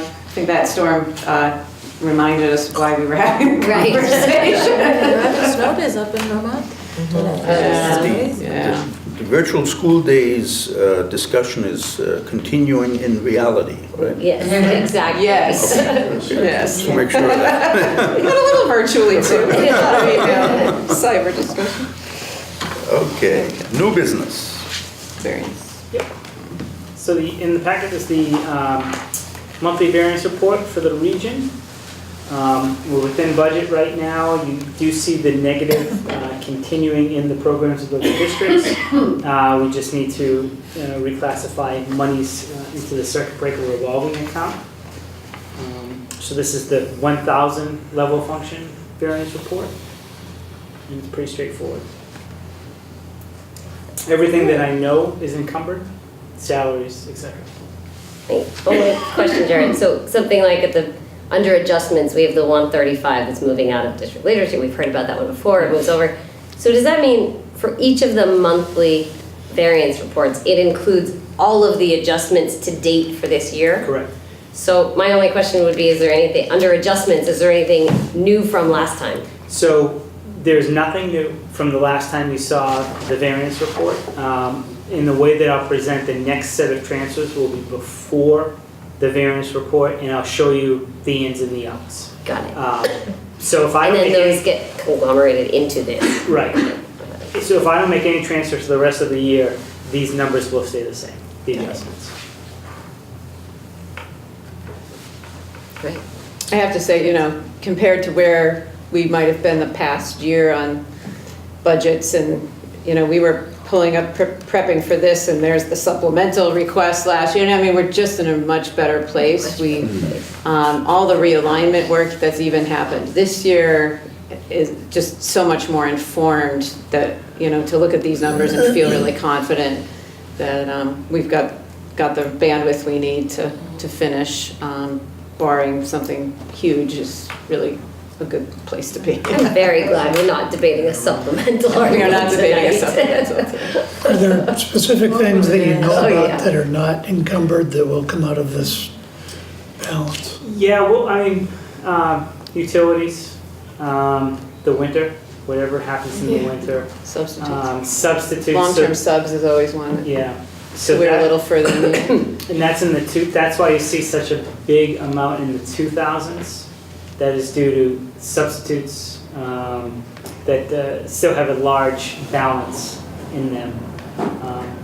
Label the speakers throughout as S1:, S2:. S1: think that storm uh, reminded us why we were having the
S2: Right.
S1: conversation.
S3: Snow days up in Vermont.
S1: Yeah,
S3: It's amazing.
S1: Um, yeah.
S4: The virtual school days uh, discussion is uh, continuing in reality, right?
S2: Yes, exactly.
S1: Yes. Yes.
S4: Just to make sure of that.
S1: We got a little virtually too. We had a little email, Cyber discussion.
S4: Okay, new business.
S1: Experience.
S5: So the, in the packet is the um, monthly variance report for the region. Um, We're within budget right now. You do see the negative uh, continuing in the programs of local districts. Uh, We just need to uh, reclassify monies uh, into the circuit breaker revolving account. Um, So this is the 1,000 level function variance report. And it's pretty straightforward. Everything that I know is encumbered salaries, etc.
S2: Wait, Only question, Jared, so something like at the, under adjustments, we have the one thirty-five that's moving out of district leadership, we've heard about that one before, it moves over. So does that mean for each of the monthly variance reports, it includes all of the adjustments to date for this year?
S5: Correct.
S2: So my only question would be, is there anything, under adjustments, is there anything new from last time?
S5: So there's nothing new from the last time you saw the variance report. Um, In the way that I'll present the next set of transfers will be before the variance report, and I'll show you the ins and the outs.
S2: Got it.
S5: Um, So if I
S2: And then
S5: don't make
S2: those
S5: any,
S2: get conglomerated into this.
S5: right, so if I don't make any transfers for the rest of the year, these numbers will stay the same, the adjustments.
S2: Right.
S1: I have to say, you know, compared to where we might have been the past year on budgets and, you know, we were pulling up, pre- prepping for this and there's the supplemental request last year. You know, I mean, we're just in a much better place. We, um, all the realignment work that's even happened this year is just so much more informed that, you know, to look at these numbers and feel really confident that, um, we've got, got the bandwidth we need to, to finish, um, barring something huge is really a good place to be.
S2: I'm very glad we're not debating a supplemental
S1: We are
S2: article
S1: not debating a
S2: tonight.
S1: supplemental.
S6: Are there specific things that you know
S2: Oh, yeah.
S6: about that are not encumbered that will come out of this balance?
S5: Yeah, well, I mean, um, utilities, um, the winter, whatever happens in the winter.
S1: Substitutes.
S5: Um, substitutes.
S1: Long-term
S5: so-
S1: subs is always one,
S5: Yeah. So
S1: we're a
S5: that,
S1: little further than you.
S5: and that's in the two, that's why you see such a big amount in the two thousands. That is due to substitutes, um, that, uh, still have a large balance in them. Um,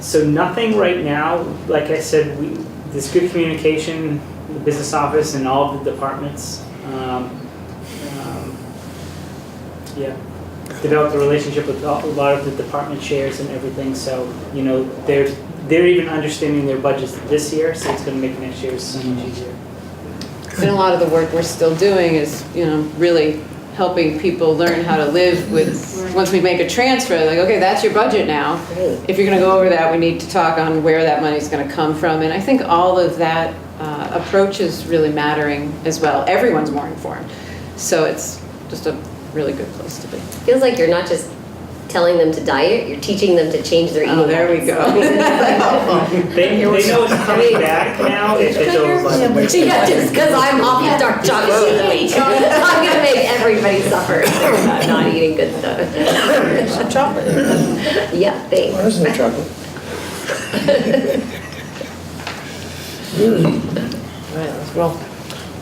S5: So nothing right now, like I said, we, there's good communication, the business office and all of the departments. Um, um, Yeah, developed a relationship with a a lot of the department chairs and everything, so, you know, they're, they're even understanding their budgets this year, so it's gonna make next year so much easier.
S1: And a lot of the work we're still doing is, you know, really helping people learn how to live with, once we make a transfer, like, okay, that's your budget now.
S2: Right.
S1: If you're gonna go over that, we need to talk on where that money's gonna come from, and I think all of that uh, approach is really mattering as well. Everyone's more informed, so it's just a really good place to be.
S2: Feels like you're not just telling them to diet, you're teaching them to change their eating.
S1: Oh, there we
S2: habits.
S1: go.
S5: They, they know it's coming back now, if it's over budget.
S2: Yeah, just because I'm off the dark chocolate for the week. I'm gonna make everybody suffer about not eating good stuff.
S3: Chocolate.
S2: Yeah, thanks.
S6: Where's the chocolate?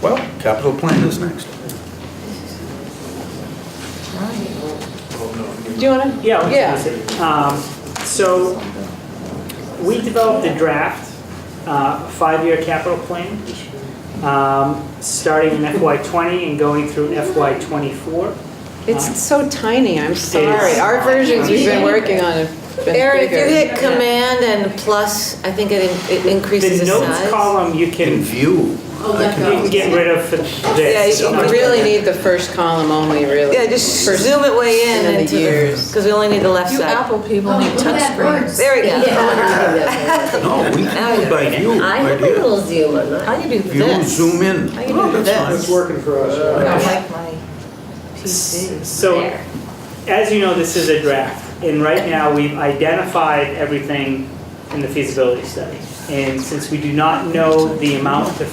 S4: Well, capital plan is next.
S1: Do you wanna?
S5: Yeah, I
S1: Yeah.
S5: was gonna say, um, so we developed a draft, uh, five-year capital plan, um, starting in FY twenty and going through FY twenty-four.
S1: It's so tiny, I'm sorry.
S5: is.
S1: Our versions we've been working on have been bigger.
S3: Aaron, if you hit command and plus, I think it it increases
S5: The
S3: the
S5: notes
S3: size. Oh,
S5: column, you
S4: In
S5: can, you
S4: view,
S5: can get rid of for
S3: Yeah, you
S5: this.
S3: can
S1: You really need the first column only, really.
S3: Yeah, just
S1: First-
S3: zoom it way
S1: and
S3: in
S1: then the
S3: into
S1: years.
S3: the, because we only need the left
S7: You
S3: side. Oh,
S7: Apple people need touchscreens.
S3: There we go.
S2: Yeah.
S3: Oh,
S4: no, we do by view,
S2: I
S4: my
S2: have a
S4: dear.
S2: little zoom on that.
S3: I can do
S4: View,
S3: this.
S4: zoom in.
S3: I can do
S4: That's
S3: this.
S4: fine.
S8: working for us.
S3: I
S8: uh,
S3: don't
S7: like my PC.
S5: So,
S2: There.
S5: as you know, this is a draft, and right now, we've identified everything in the feasibility study. And since we do not know the amount to